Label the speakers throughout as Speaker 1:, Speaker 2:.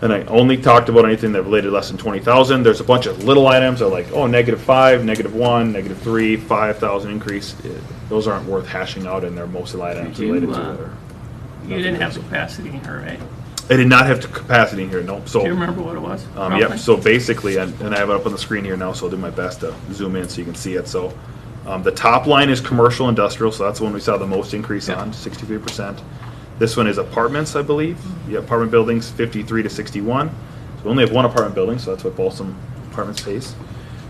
Speaker 1: And I only talked about anything that related less than twenty thousand. There's a bunch of little items that are like, oh, negative five, negative one, negative three, five thousand increase. Eh, Those aren't worth hashing out and they're mostly line items
Speaker 2: Did you,
Speaker 1: related to
Speaker 2: uh,
Speaker 1: other.
Speaker 2: You didn't have the capacity in here, right?
Speaker 1: I did not have the capacity in here, no, so.
Speaker 2: Do you remember what it was?
Speaker 1: Um, yep,
Speaker 2: roughly?
Speaker 1: so basically, and and I have it up on the screen here now, so I'll do my best to zoom in so you can see it. So, um, the top line is commercial industrial, so that's the one we saw the most increase
Speaker 2: Yeah.
Speaker 1: on, sixty-three percent. This one is apartments, I believe. Yeah, apartment buildings, fifty-three to sixty-one. So we only have one apartment building, so that's what Balsam Apartments pays.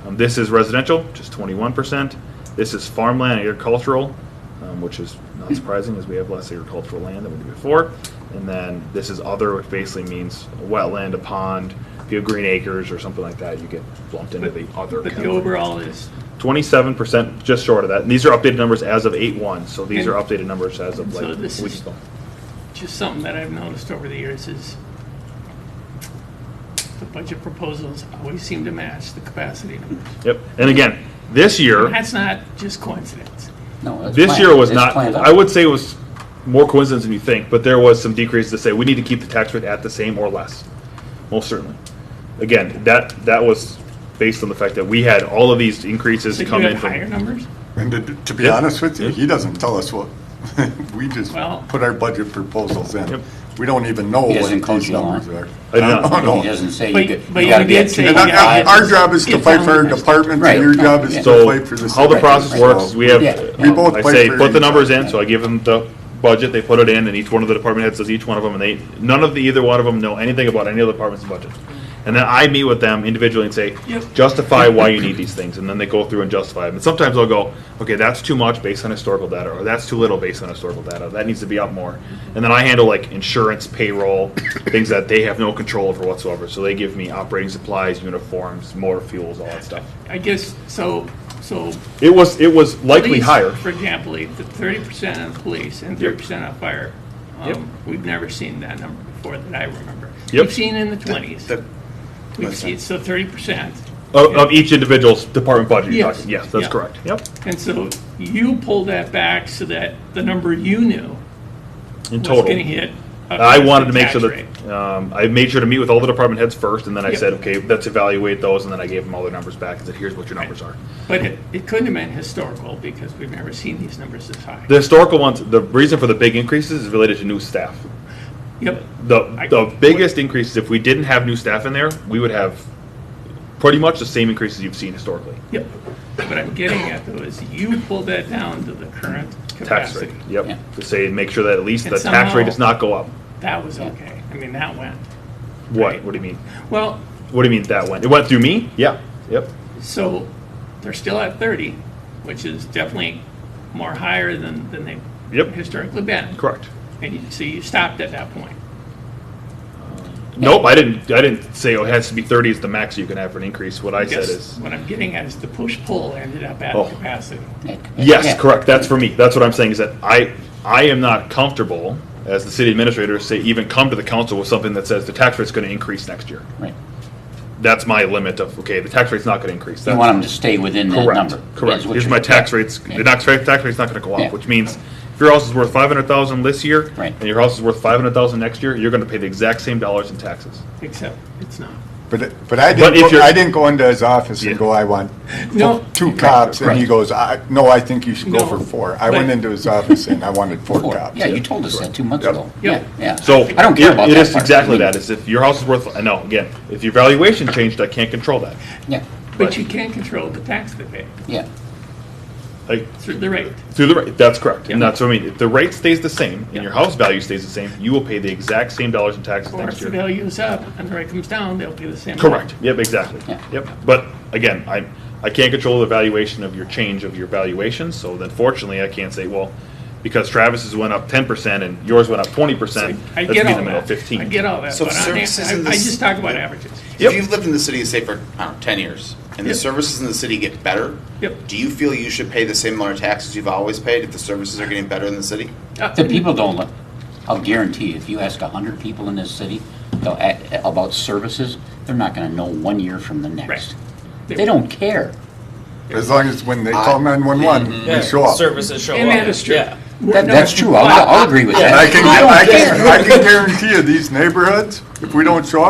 Speaker 1: Um, this is residential, just twenty-one percent. This is farmland agricultural, um, which is not surprising, as we have less agricultural land than we did before. And then this is other, which basically means a wetland, a pond, if you have green acres or something like that, you get lumped into the other.
Speaker 2: But the
Speaker 1: category.
Speaker 2: overall is,
Speaker 1: Twenty-seven percent, just short of that. And these are updated numbers as of eight-one, so these are
Speaker 2: Okay.
Speaker 1: updated numbers as of
Speaker 2: So
Speaker 1: like a
Speaker 2: this
Speaker 1: week
Speaker 2: is-
Speaker 1: ago.
Speaker 2: just something that I've noticed over the years is the budget proposals always seem to match the capacity numbers.
Speaker 1: Yep, and again, this year,
Speaker 2: That's not just coincidence.
Speaker 3: No, it's
Speaker 1: this
Speaker 3: planned.
Speaker 1: year was
Speaker 3: It's
Speaker 1: not,
Speaker 3: planned out.
Speaker 1: I would say it was more coincidence than you think, but there was some decrease to say, we need to keep the tax rate at the same or less, most certainly. Again, that, that was based on the fact that we had all of these increases
Speaker 2: So you
Speaker 1: come in
Speaker 2: have
Speaker 1: from.
Speaker 2: higher numbers?
Speaker 4: And to- to be
Speaker 1: Yeah.
Speaker 4: honest with you,
Speaker 1: Yeah.
Speaker 4: he doesn't tell us what, we just
Speaker 2: Well-
Speaker 4: put our budget proposals
Speaker 1: Yep.
Speaker 4: in. We don't even know
Speaker 3: He
Speaker 4: what
Speaker 3: doesn't coach
Speaker 4: these
Speaker 3: you on
Speaker 4: numbers
Speaker 3: it.
Speaker 4: are.
Speaker 1: I do not.
Speaker 4: don't know.
Speaker 3: He doesn't say
Speaker 2: But-
Speaker 3: you get,
Speaker 2: but
Speaker 3: you
Speaker 2: you
Speaker 3: gotta be
Speaker 2: did
Speaker 3: at
Speaker 2: say
Speaker 3: two
Speaker 2: you
Speaker 4: And our-
Speaker 2: gotta-
Speaker 3: five.
Speaker 4: our, our job is to
Speaker 2: It's
Speaker 4: fight for our
Speaker 2: on us.
Speaker 4: departments,
Speaker 3: Right.
Speaker 4: and your job is
Speaker 3: Yeah.
Speaker 4: to
Speaker 1: So,
Speaker 4: fight for the.
Speaker 1: how the
Speaker 4: city.
Speaker 1: process
Speaker 3: Right.
Speaker 1: works is we have, um,
Speaker 3: Yeah.
Speaker 4: We both
Speaker 1: I
Speaker 4: fight
Speaker 1: say,
Speaker 4: for
Speaker 1: put the
Speaker 4: each
Speaker 1: numbers
Speaker 4: other.
Speaker 1: in, so I give them the budget, they put it in, and each one of the department heads does each one of them, and they, none of the, either one of them know anything about any other department's budget. And then I meet with them individually and say,
Speaker 2: Yep.
Speaker 1: justify why you need these things, and then they go through and justify them. And sometimes I'll go, okay, that's too much based on historical data, or that's too little based on historical data, that needs to be up more. And then I handle like insurance, payroll, things that they have no control over whatsoever, so they give me operating supplies, uniforms, motor fuels, all that stuff.
Speaker 2: I guess, so, so.
Speaker 1: It was, it was likely
Speaker 2: police,
Speaker 1: higher.
Speaker 2: For example, the thirty percent on police and
Speaker 1: Yep.
Speaker 2: thirty percent on fire.
Speaker 1: Yep.
Speaker 2: Um, We've never seen that number before that I remember.
Speaker 1: Yep.
Speaker 2: We've seen in the twenties.
Speaker 4: That-
Speaker 2: We've seen, so thirty percent.
Speaker 1: Of, of each individual's department budget, you're
Speaker 2: Yes.
Speaker 1: talking, yes, that's
Speaker 2: Yeah.
Speaker 1: correct, yep.
Speaker 2: And so you pull that back so that the number you knew
Speaker 1: In
Speaker 2: was gonna
Speaker 1: total.
Speaker 2: hit. a
Speaker 1: I wanted to
Speaker 2: constant
Speaker 1: make sure
Speaker 2: tax rate.
Speaker 1: that, um, I made sure to meet with all the department heads first, and then I
Speaker 2: Yep.
Speaker 1: said, okay, let's evaluate those, and then I gave them all their numbers back, and said, here's what your numbers are.
Speaker 2: But it, it couldn't have been historical because we've never seen these numbers this high.
Speaker 1: The historical ones, the reason for the big increases is related to new staff.
Speaker 2: Yep,
Speaker 1: The,
Speaker 2: I-
Speaker 1: the biggest increases, if we didn't have new staff in there, we would have pretty much the same increases you've seen historically.
Speaker 2: yep. What I'm getting at though is you pulled that down to the current
Speaker 1: Tax rate,
Speaker 2: capacity.
Speaker 3: Yeah.
Speaker 1: yep. To say, make sure that at least
Speaker 2: And
Speaker 1: the tax rate
Speaker 2: somehow-
Speaker 1: does not go up.
Speaker 2: That was okay. I mean, that went.
Speaker 1: What,
Speaker 2: Right.
Speaker 1: what do you mean?
Speaker 2: Well,
Speaker 1: What do you mean that went? It went through me? Yeah, yep.
Speaker 2: so they're still at thirty, which is definitely more higher than, than they've
Speaker 1: Yep.
Speaker 2: historically been.
Speaker 1: Correct.
Speaker 2: And you, so you stopped at that point.
Speaker 1: Nope, I didn't. I didn't say oh, it has to be thirty is the max you can have for an increase. What I
Speaker 2: Guess
Speaker 1: said is
Speaker 2: What I'm getting at is the push-pull ended up at
Speaker 1: Oh.
Speaker 2: capacity.
Speaker 1: yes,
Speaker 3: Yeah.
Speaker 1: correct. That's for me. That's what I'm saying is that I I am not comfortable as the city administrator say even come to the council with something that says the tax rate's going to increase next year.
Speaker 3: Right.
Speaker 1: That's my limit of okay, the tax rate's not going to increase.
Speaker 3: You
Speaker 1: That's-
Speaker 3: want them to stay within that
Speaker 1: Correct,
Speaker 3: number.
Speaker 1: correct.
Speaker 3: is what
Speaker 1: Here's
Speaker 3: you're-
Speaker 1: my tax
Speaker 3: yeah.
Speaker 1: rates, the
Speaker 3: Yeah.
Speaker 1: tax rate, tax rate's not gonna go
Speaker 3: Yeah.
Speaker 1: up, which means if your house is worth five hundred thousand this year,
Speaker 3: Right.
Speaker 1: and your house is worth five hundred thousand next year, you're gonna pay the exact same dollars in taxes.
Speaker 2: Except it's not.
Speaker 1: Oh.
Speaker 4: But, it- but I
Speaker 1: But if
Speaker 4: didn't, go-
Speaker 1: you're-
Speaker 4: I didn't go into his office
Speaker 1: Yeah.
Speaker 4: and go, I want
Speaker 2: No,
Speaker 4: two cops, and he
Speaker 1: Right.
Speaker 4: goes, I, no, I think you should go
Speaker 2: No,
Speaker 4: for four. I
Speaker 2: but-
Speaker 4: went into his office and I wanted four cops.
Speaker 3: Yeah, you told us that two months ago.
Speaker 2: Yep.
Speaker 3: Yeah, yeah.
Speaker 1: So.
Speaker 3: I don't care
Speaker 1: it-
Speaker 3: about that
Speaker 1: It is
Speaker 3: part.
Speaker 1: exactly
Speaker 3: I mean,
Speaker 1: that, is if your house is worth, I know, again, if your valuation changed, I can't control that.
Speaker 3: Yeah,
Speaker 2: but you can control the tax they pay
Speaker 3: yeah.
Speaker 1: Like,
Speaker 2: through the rate.
Speaker 1: through the, rate. that's correct, and
Speaker 2: Yeah.
Speaker 1: that's what I mean, if the rate stays the same, and your
Speaker 2: Yeah.
Speaker 1: house value stays the same, you will pay the exact same dollars in taxes
Speaker 2: Or if
Speaker 1: next
Speaker 2: the
Speaker 1: year.
Speaker 2: value is up and the rate comes down, they'll pay the same.
Speaker 1: Correct. Yep, exactly.
Speaker 3: Yeah.
Speaker 1: Yep. But again, I, I can't control the valuation of your change of your valuation, so then fortunately, I can't say, well, because Travis's went up ten percent and yours went up twenty percent,
Speaker 2: I
Speaker 1: let's meet
Speaker 2: get all
Speaker 1: them at
Speaker 2: that.
Speaker 1: fifteen.
Speaker 2: I get all that,
Speaker 5: So
Speaker 2: but I'm- I, I
Speaker 5: services in this-
Speaker 2: just talk about averages.
Speaker 1: Yep.
Speaker 5: If you've lived in the city, say for I don't know, ten years, and the
Speaker 2: Yep.
Speaker 5: services in the city get better,
Speaker 2: Yep.
Speaker 5: do you feel you should pay the same amount of taxes you've always paid if the services are getting better in the city?
Speaker 2: Uh,
Speaker 3: The people don't look, I'll guarantee you, if you ask a hundred people in this city they'll a- about services, they're not gonna know one year from the next. They don't care.
Speaker 4: As long as when they call nine-one-one,
Speaker 3: Mm-hmm.
Speaker 6: Yeah,
Speaker 4: we show up.
Speaker 6: Services show
Speaker 2: And
Speaker 6: up.
Speaker 2: that is true.
Speaker 6: Yeah.
Speaker 2: We're
Speaker 3: That,
Speaker 2: not-
Speaker 3: that's true, I'll, I'll agree with
Speaker 4: And
Speaker 3: that.
Speaker 4: I can,
Speaker 3: don't
Speaker 4: I
Speaker 3: care.
Speaker 4: can, I can guarantee you, these neighborhoods, if we don't show up,